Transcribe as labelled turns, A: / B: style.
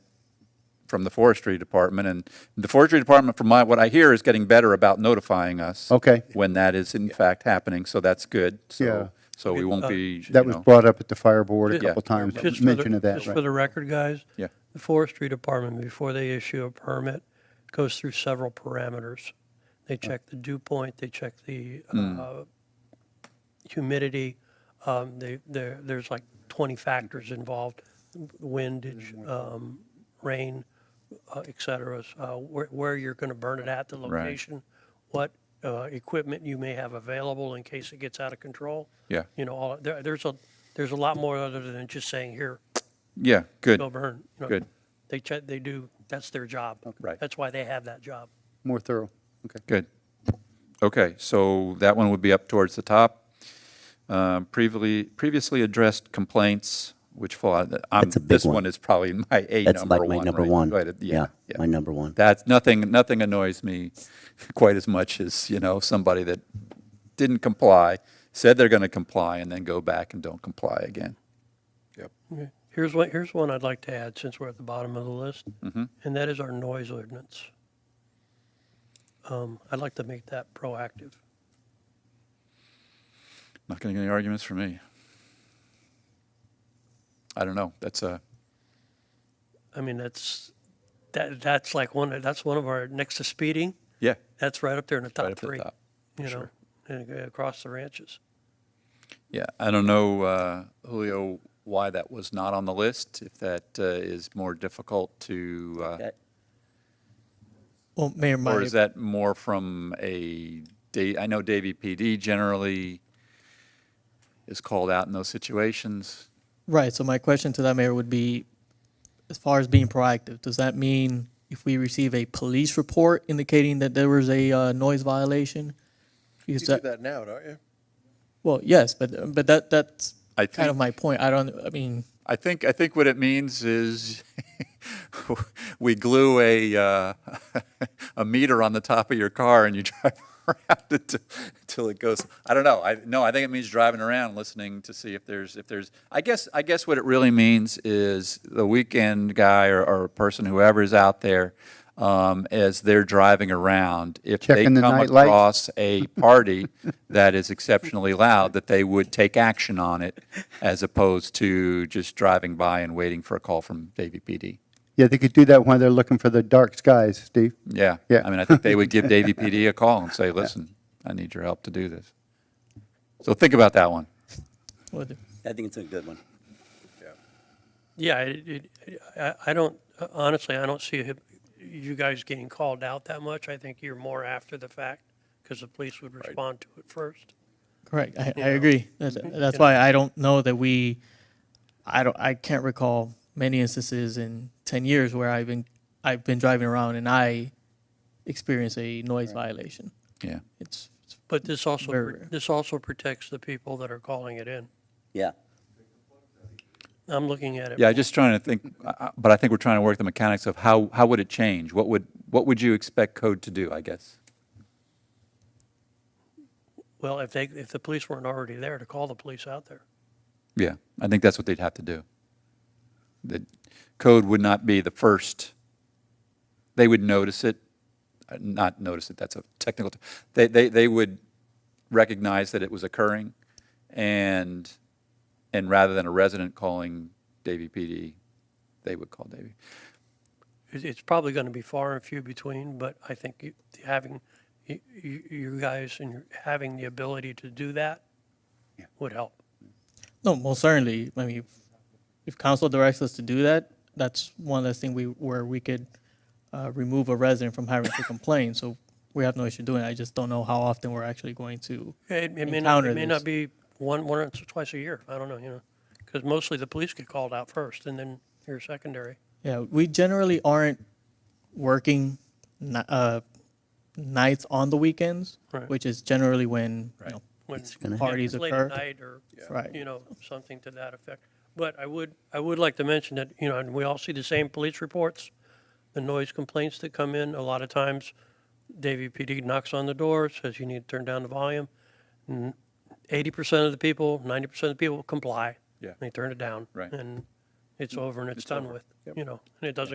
A: from the forestry department, and the forestry department, from my, what I hear, is getting better about notifying us.
B: Okay.
A: When that is in fact happening, so that's good. So-
B: Yeah.
A: So we won't be, you
B: That was
A: know,
B: brought up at the fire board a
A: Yeah.
B: couple
C: Just
B: times,
C: for the-
B: mention of that,
C: Just for
B: right?
C: the record, guys.
A: Yeah.
C: The forestry department, before they issue a permit, goes through several parameters. They check the dew point, they check the uh, humidity. um, They, there, there's like 20 factors involved, windage, um, rain, uh, et cetera, uh, where, where you're going to burn it at, the location, what uh, equipment you may have available in case it gets out of control.
A: Yeah.
C: You know, all, there, there's a, there's a lot more other than just saying, here,
A: yeah, good.
C: go burn. you know.
A: Good.
C: They check, they do, that's their job.
A: Right.
C: That's why they have that job.
B: More thorough, okay.
A: Good. Okay, so that one would be up towards the top. Um, Previously, previously addressed complaints, which fall, out- I'm,
D: That's a big
A: this
D: one.
A: one is probably my A number one.
D: That's like my number
A: right?
D: one.
A: Right, yeah, yeah.
D: my number one.
A: That's, nothing, nothing annoys me quite as much as, you know, somebody that didn't comply, said they're going to comply, and then go back and don't comply again.
C: Here's one, here's one I'd like to add, since we're at the bottom of the list,
A: Mm-hmm.
C: and that is our noise ordinance. Um, I'd like to make that proactive.
A: Not going to get any arguments from me. I don't know, that's a,
C: I mean, that's, that, that's like one, that's one of our, next to speeding,
A: yeah,
C: that's right up there in the
A: right
C: top
A: up at the
C: three,
A: top.
C: you know,
A: sure.
C: and uh, across the ranches.
A: Yeah, I don't know, uh, Julio, why that was not on the list, if that uh, is more difficult to, uh,
E: Well, Mayor, my,
A: or is that more from a, da- I know Davy PD generally is called out in those situations.
E: right, so my question to that, Mayor, would be, as far as being proactive, does that mean if we receive a police report indicating that there was a uh, noise violation? Because
F: You do
E: that,
F: that now, don't you?
E: well, yes, but, but that, that's
A: I
E: kind
A: think-
E: of my point. I don't, I mean,
A: I think, I think what it means is we glue a, uh, a meter on the top of your car and you drive around until, until it goes, I don't know. I, no, I think it means driving around, listening to see if there's, if there's, I guess, I guess what it really means is the weekend guy or, or person, whoever is out there, um, as they're driving around, if they
B: Checking the
A: come
B: night lights.
A: across across a party that is exceptionally loud, that they would take action on it as opposed to just driving by and waiting for a call from Davy PD.
B: Yeah, they could do that while they're looking for the dark skies, Steve.
A: Yeah.
B: Yeah.
A: I mean, I think they would give Davy PD a call and say, listen, I need your help to do this. So think about that one.
E: what-
D: I think it's a good one.
C: Yeah, it, it, I, I don't, honestly, I don't see it- you guys getting called out that much. I think you're more after the fact because the police would respond to it first.
E: correct, I, I agree. That's, that's why I don't know that we, I don't, I can't recall many instances in ten years where I've been, I've been driving around and I experience a noise violation.
A: Yeah.
E: It's, it's
C: But this also,
E: Very
C: pr-
E: rare.
C: this also protects the people that are calling it in.
D: Yeah.
C: I'm looking at it.
A: Yeah, just trying to think, I- I- but I think we're trying to work the mechanics of how, how would it change? What would, what would you expect code to do, I guess?
C: Well, if they, if the police weren't already there to call the police out there.
A: Yeah, I think that's what they'd have to do. The code would not be the first, they would notice it, uh, not notice it, that's a technical, t- they, they, they would recognize that it was occurring, and, and rather than a resident calling Davy PD, they would call Davy.
C: It- It's probably going to be far and few between, but I think you- having, you, you you guys and your- having the ability to do that would help.
E: No, most certainly. I mean, if- if council directs us to do that, that's one less thing we, where we could uh, remove a resident from having to complain. So we have no issue doing it. I just don't know how often we're actually going to.
C: It, it may not, it
E: encounter
C: may not be
E: this.
C: one, once or twice a year. I don't know, you know, because mostly the police get called out first and then you're secondary.
E: Yeah, we generally aren't working ni- uh, nights on the weekends,
C: Right.
E: which is generally when, you know,
C: When
D: gonna
E: parties
C: Late at
E: occur.
C: night or,
E: Right.
C: you know, something to that effect. But I would, I would like to mention that, you know, and we all see the same police reports, the noise complaints that come in. A lot of times, Davie PD knocks on the door, says you need to turn down the volume. Eighty percent of the people, ninety percent of the people comply.
A: Yeah.
C: They turn it down.
A: Right. Mm.
C: And it's over and it's done with, you know, and it doesn't